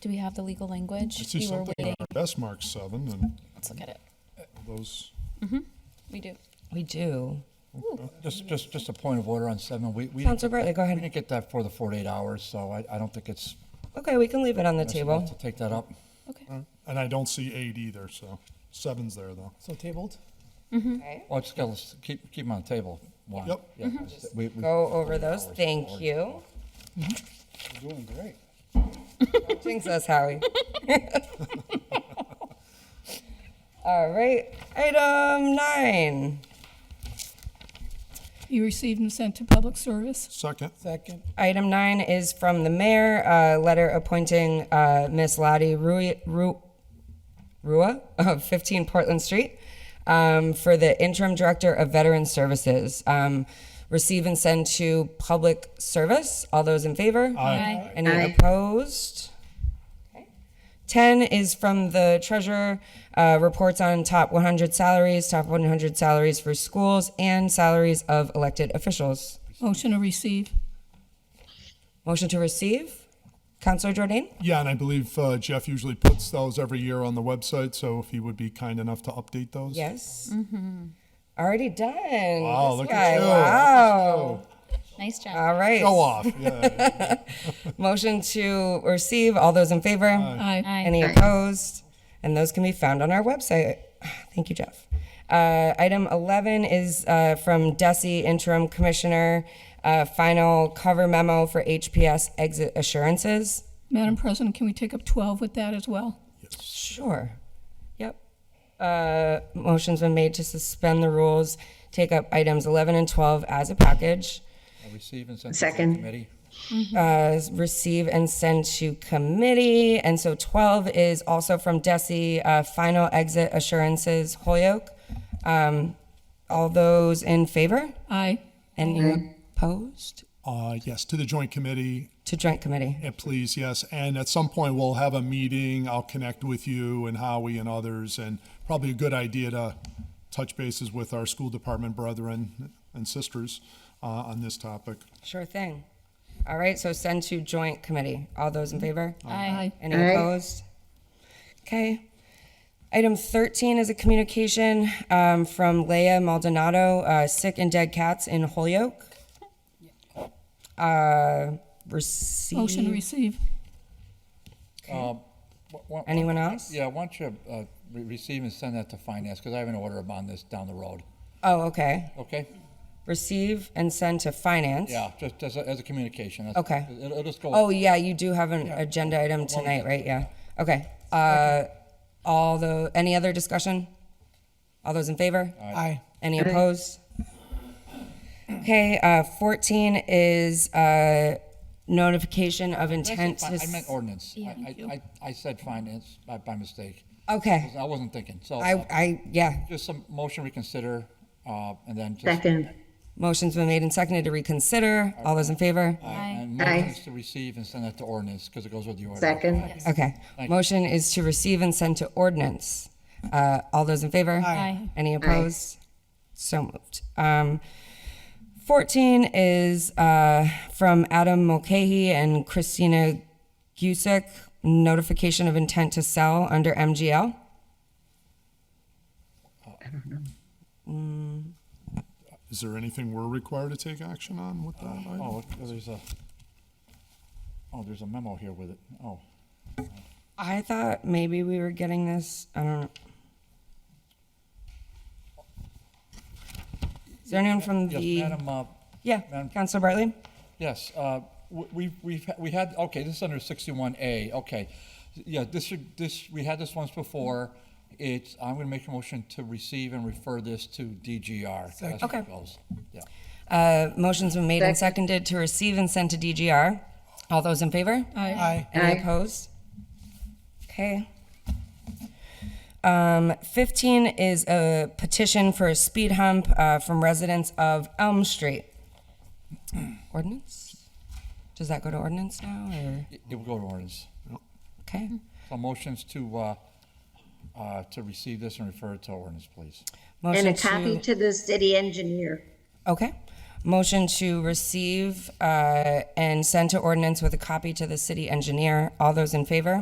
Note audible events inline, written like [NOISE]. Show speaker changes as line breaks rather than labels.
Do we have the legal language?
I see
We were
something on
waiting.
our best mark seven and
Let's look at it.
those,
We do.
We do.
Just, just, just a point of order on seven. We, we. didn't
Counselor
get that-
Bartley, go
We
ahead.
didn't get that for the forty-eight hours, so I, I don't think it's.
Okay, we can leave it on the
sensible To
table.
take that up.
Okay.
and I don't see eight either, so seven's there though.
So tabled?
Okay.
Well, just gotta s- keep, keep 'em on the table. Why?
Yep.
Yeah, just- we- we-
Mm-hmm. Go over those. Thank you.
We're doing
[LAUGHS]
great.
Jinx us, Howie. All right, item nine.
Be received and sent to public service.
Second,
Second,
Item nine is from the mayor, a letter appointing uh, Ms. Lottie Rui- Ru- Rua of 15 Portland Street um, for the interim director of Veteran Services. Um, Receive and send to public service. All those in favor?
Aye.
Any opposed? Okay. 10 is from the treasurer, uh, reports on top 100 salaries, top 100 salaries for schools, and salaries of elected officials.
Motion to receive.
Motion to receive. Counselor Jordan?
yeah, and I believe uh, Jeff usually puts those every year on the website, so if he would be kind enough to update those.
Yes. Mm-hmm. Already done.
Wow,
This
look
guy,
at you.
Wow.
Nice job.
All right.
Go off, yeah. [LAUGHS]
Motion to receive. All those in favor?
Aye.
Aye.
Any opposed? And those can be found on our website. [SIGHS] Thank you, Jeff. Uh, item 11 is uh, from Desi, interim commissioner, uh, final cover memo for HPS exit assurances.
Madam President, can we take up 12 with that as well?
Sure. Yep. Uh, Motion's been made to suspend the rules, take up items 11 and 12 as a package,
uh, Receive and send. to the
Second.
Committee.
uh, receive and send to committee. And so 12 is also from Desi, uh, final exit assurances Holyoke. Um, All those in favor?
Aye.
Any opposed?
Uh, Yes, to the joint committee,
To joint committee.
and please, yes, and at some point we'll have a meeting, I'll connect with you and Howie and others, and probably a good idea to touch bases with our school department brethren and sisters uh, on this topic.
Sure thing. All right, so send to joint committee. All those in favor?
Aye.
Any opposed? Okay. Item 13 is a communication um, from Leah Maldonado, uh, Sick and Dead Cats in Holyoke. Uh,
Motion
Receive,
to receive.
Um, wha- wha-
anyone else?
Yeah, why don't you, uh, re- receive and send that to finance, because I have an order on this down the road.
Oh, okay.
Okay?
Receive and send to finance.
Yeah, just as a, as a communication. That's-
Okay.
It'll, it'll just go.
Oh, yeah, you do have an agenda item tonight, right? Yeah. Okay. Uh, All the, any other discussion? All those in favor?
aye.
Any opposed? Okay, uh, fourteen is, uh, notification of
Did I say
intent
fi-
to.
I
s-
meant ordinance. I, I, I- I said finance by, by mistake.
Okay,
I wasn't thinking, so.
I, I, yeah,
Just some motion reconsider, uh, and then just.
Second.
motion's been made and seconded to reconsider. All those in favor?
And
Aye.
motion is to receive and send that to ordinance, because it goes with the order.
Second.
Okay, motion is to receive and send to ordinance. Uh, all those in favor?
Aye.
Any opposed? So moved. Um, fourteen is, uh, from Adam Mulcahy and Christina Gusick, notification of intent to sell under MGL.
Is there anything we're required to take action on with that? item?
Oh, look, there's a, oh, there's a memo here with it. Oh,
I thought maybe we were getting this, I don't know. Is there anyone from
yes,
the,
Madam, uh,
yeah,
Madam-
Counselor Bartley?
yes, uh, w- we've, we've, ha- we had, okay, this is under sixty-one A, okay. Yeah, this, should- this, we had this once before. It's, I'm gonna make a motion to receive and refer this to DGR. That's where it
Okay.
goes. Yeah.
Uh, motion's been made and seconded to receive and send to DGR. All those in favor?
Aye.
Aye.
Any opposed? Okay. Um, fifteen is a petition for a speed hump, uh, from residents of Elm Street. Ordinance? Does that go to ordinance now, or,
It it will go to ordinance.
okay?
So motions to, uh, uh, to receive this and refer it to ordinance, please.
Motion
And a copy to the city engineer.
Okay. Motion to receive uh, and send to ordinance with a copy to the city engineer. All those in favor?